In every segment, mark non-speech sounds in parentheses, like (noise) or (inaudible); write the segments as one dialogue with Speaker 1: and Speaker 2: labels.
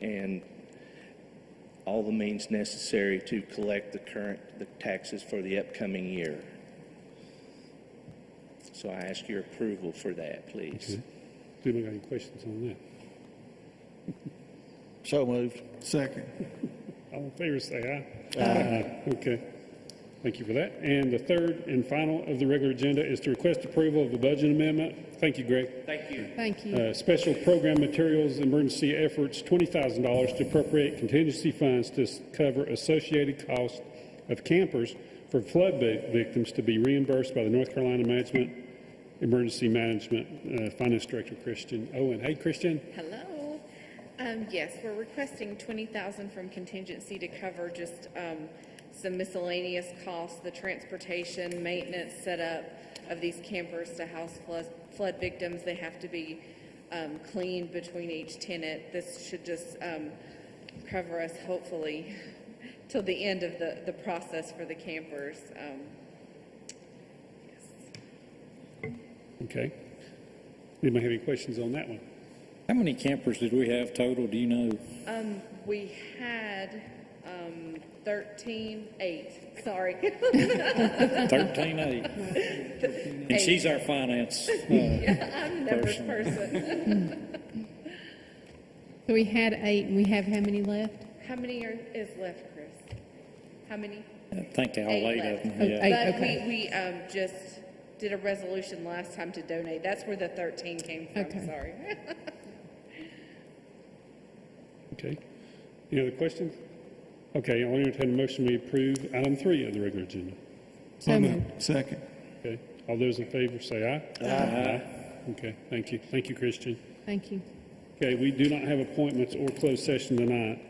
Speaker 1: and all the means necessary to collect the current, the taxes for the upcoming year. So I ask your approval for that, please.
Speaker 2: Does anybody got any questions on that?
Speaker 3: So moved.
Speaker 4: Second.
Speaker 2: All in favor, say aye. Aye. Okay. Thank you for that. And the third and final of the regular agenda is to request approval of the budget amendment. Thank you, Greg.
Speaker 1: Thank you.
Speaker 5: Thank you.
Speaker 2: Uh, Special Program Materials Emergency Efforts, $20,000 to appropriate contingency funds to s- cover associated costs of campers for flood vi- victims to be reimbursed by the North Carolina Management, Emergency Management uh, Finance Director Christian Owen. Hey, Christian?
Speaker 6: Hello. Um, yes, we're requesting twenty thousand from contingency to cover just, um, some miscellaneous costs, the transportation, maintenance, setup of these campers to house flood, flood victims. They have to be, um, cleaned between each tenant. This should just, um, cover us hopefully till the end of the, the process for the campers. Um,
Speaker 2: Okay. Anybody have any questions on that one?
Speaker 3: How many campers did we have total, do you know?
Speaker 6: we had, um, thirteen, eight, sorry. (laughs)
Speaker 3: 13, eight. And she's our finance. uh,
Speaker 6: I'm a numbers person.
Speaker 5: So we had eight, and we have how many left?
Speaker 6: How many are, is left, Chris? How many?
Speaker 3: I think all eight
Speaker 6: Eight left.
Speaker 3: of them,
Speaker 5: Oh,
Speaker 3: yeah.
Speaker 5: eight.
Speaker 6: But we,
Speaker 5: okay.
Speaker 6: we, um, just did a resolution last time to donate. That's where the thirteen came from,
Speaker 5: Okay.
Speaker 6: sorry.
Speaker 2: Okay. Any other questions? Okay, I'll entertain a motion we approve item three of the regular agenda.
Speaker 5: So moved.
Speaker 4: Second.
Speaker 2: Okay, all those in favor say aye. Aye. Okay, thank you, thank you, Christian.
Speaker 5: Thank you.
Speaker 2: Okay, we do not have appointments or closed session tonight.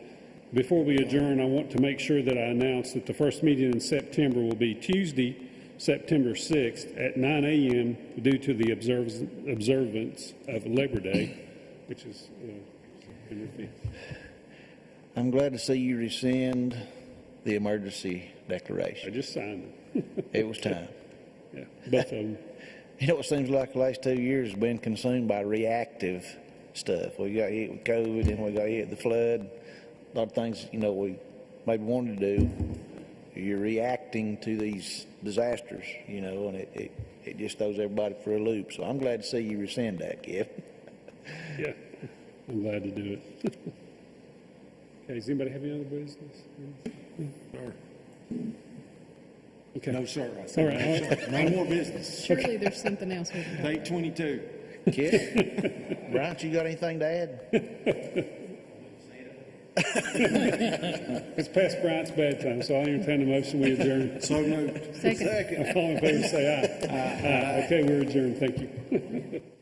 Speaker 2: Before we adjourn, I want to make sure that I announce that the first meeting in September will be Tuesday, September 6th at 9 a.m. due to the observance observance of Labor Day, which is uh, September 5th.
Speaker 3: I'm glad to see you rescind the emergency
Speaker 2: I
Speaker 3: declaration.
Speaker 2: just signed it. (laughs)
Speaker 3: It was time.
Speaker 2: Yeah, Both of them.
Speaker 3: You know, it seems like the last two years has been consumed by reactive stuff. We got hit with COVID and we got hit with the flood. A lot of things, you know, we maybe wanted to do. You're reacting to these disasters, you know, and it, it, it just throws everybody for a loop. So I'm glad to see you rescind that, Giff.
Speaker 2: Yeah, I'm glad to do it. (laughs) Okay, does anybody have any other business? Okay.
Speaker 4: No, sir. I
Speaker 2: All
Speaker 4: said
Speaker 2: right, all right.
Speaker 4: No more business.
Speaker 5: Surely there's something else we can do.
Speaker 4: Day 22.
Speaker 3: Kid, Bryant, you got anything to add?
Speaker 2: it's past Bryant's bedtime, so I'll entertain a motion, we adjourn.
Speaker 4: So moved.
Speaker 5: Second.
Speaker 2: All in favor, say aye. Aye. Okay, we're adjourned, thank you.